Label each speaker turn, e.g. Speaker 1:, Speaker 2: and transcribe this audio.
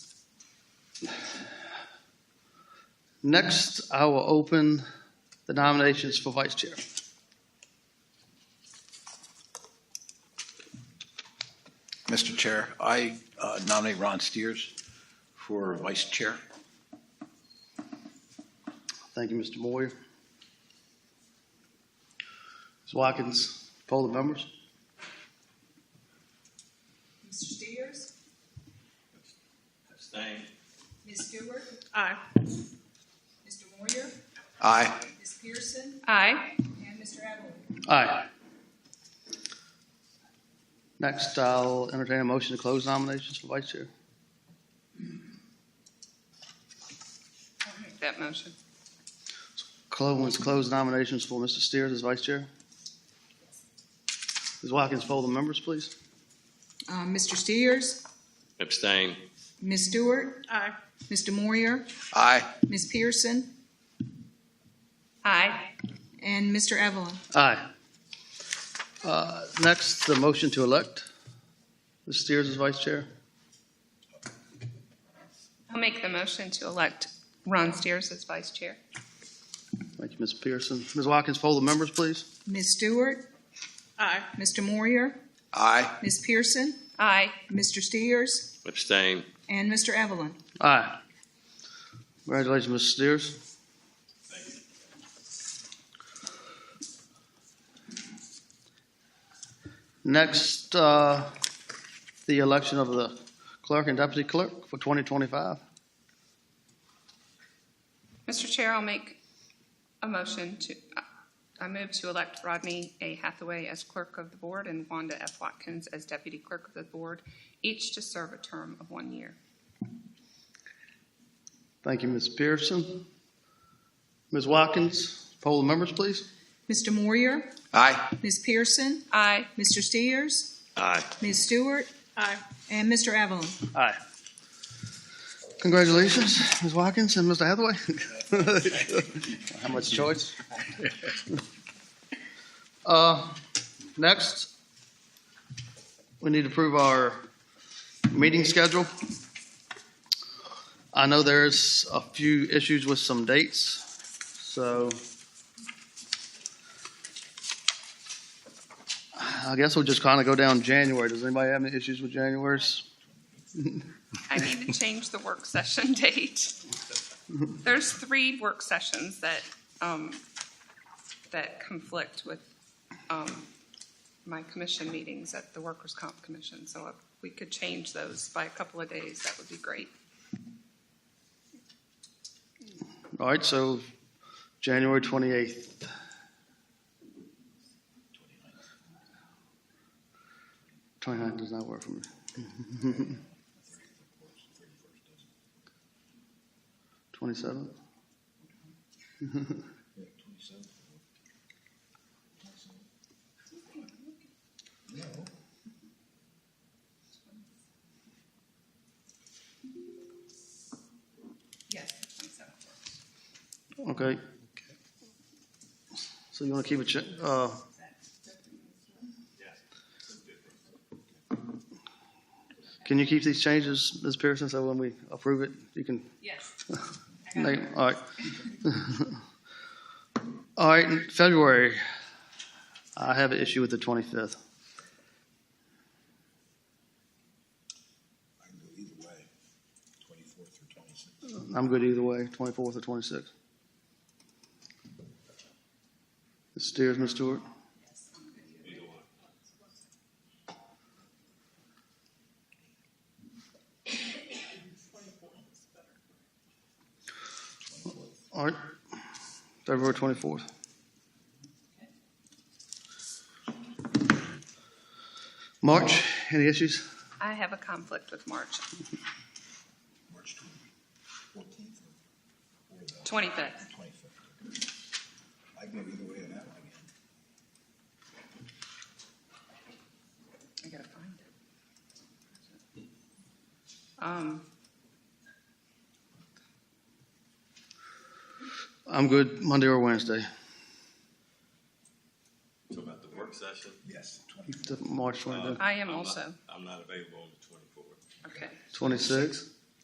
Speaker 1: Next, I will open the nominations for vice chair.
Speaker 2: Mr. Chair, I uh, nominate Ron Steers for vice chair.
Speaker 1: Thank you, Mr. Moyer. Ms. Watkins, poll the members.
Speaker 3: Mr. Steers?
Speaker 4: Abstain.
Speaker 3: Ms. Stewart?
Speaker 5: Aye.
Speaker 3: Mr. Moyer?
Speaker 2: Aye.
Speaker 3: Ms. Pearson?
Speaker 5: Aye.
Speaker 3: And Mr. Edelman?
Speaker 1: Aye. Next, I'll entertain a motion to close nominations for vice chair.
Speaker 5: I'll make that motion.
Speaker 1: Close, close nominations for Mr. Steers as vice chair. Ms. Watkins, poll the members, please.
Speaker 3: Uh, Mr. Steers?
Speaker 4: Abstain.
Speaker 3: Ms. Stewart?
Speaker 5: Aye.
Speaker 3: Mr. Moyer?
Speaker 2: Aye.
Speaker 3: Ms. Pearson?
Speaker 5: Aye.
Speaker 3: And Mr. Evelyn?
Speaker 1: Aye. Uh, Next, the motion to elect Ms. Steers as vice chair.
Speaker 5: I'll make the motion to elect Ron Steers as vice chair.
Speaker 1: Thank you, Ms. Pearson. Ms. Watkins, poll the members, please.
Speaker 3: Ms. Stewart?
Speaker 5: Aye.
Speaker 3: Mr. Moyer?
Speaker 2: Aye.
Speaker 3: Ms. Pearson?
Speaker 5: Aye.
Speaker 3: Mr. Steers?
Speaker 4: Abstain.
Speaker 3: And Mr. Evelyn?
Speaker 1: Aye. Congratulations, Ms. Steers. Next, uh, the election of the clerk and deputy clerk for 2025.
Speaker 5: Mr. Chair, I'll make a motion to, I move to elect Rodney A. Hathaway as clerk of the board and Wanda F. Watkins as deputy clerk of the board, each to serve a term of one year.
Speaker 1: Thank you, Ms. Pearson. Ms. Watkins, poll the members, please.
Speaker 3: Mr. Moyer?
Speaker 2: Aye.
Speaker 3: Ms. Pearson?
Speaker 5: Aye.
Speaker 3: Mr. Steers?
Speaker 4: Aye.
Speaker 3: Ms. Stewart?
Speaker 5: Aye.
Speaker 3: And Mr. Evelyn?
Speaker 1: Aye. Congratulations, Ms. Watkins and Mr. Hathaway. How much choice? Uh, Next, we need to approve our meeting schedule. I know there's a few issues with some dates, so I guess we'll just kind of go down January. Does anybody have any issues with January's?
Speaker 5: I need to change the work session date. There's three work sessions that, um, that conflict with, um, my commission meetings at the Workers' Comp Commission. So if we could change those by a couple of days, that would be great.
Speaker 1: All right, so January 28th. Twenty-nine does not work for me. Twenty-seven?
Speaker 5: Yes.
Speaker 1: Okay. So you want to keep it, cha- uh, can you keep these changes, Ms. Pearson, so when we approve it, you can
Speaker 5: Yes.
Speaker 1: Nate, all right. All right, in February, I have an issue with the 25th.
Speaker 6: I can go either way, twenty-fourth
Speaker 1: I'm good either way, 24th
Speaker 6: or twenty-sixth.
Speaker 1: or 26th. Ms. Steers, Ms. Stewart? All right, February 24th. March, any issues?
Speaker 5: I have a conflict with March
Speaker 6: March twenty-fourteenth or the
Speaker 5: 25th.
Speaker 6: twenty-fifth. I can go either way on that one again.
Speaker 5: I gotta find it. Um,
Speaker 1: I'm good Monday or Wednesday,
Speaker 4: So about the work session?
Speaker 6: Yes, twenty-fifth.
Speaker 1: March 25th.
Speaker 5: I am
Speaker 4: I'm not-
Speaker 5: also,
Speaker 4: I'm not available on the twenty-fourth.
Speaker 5: okay.
Speaker 1: 26?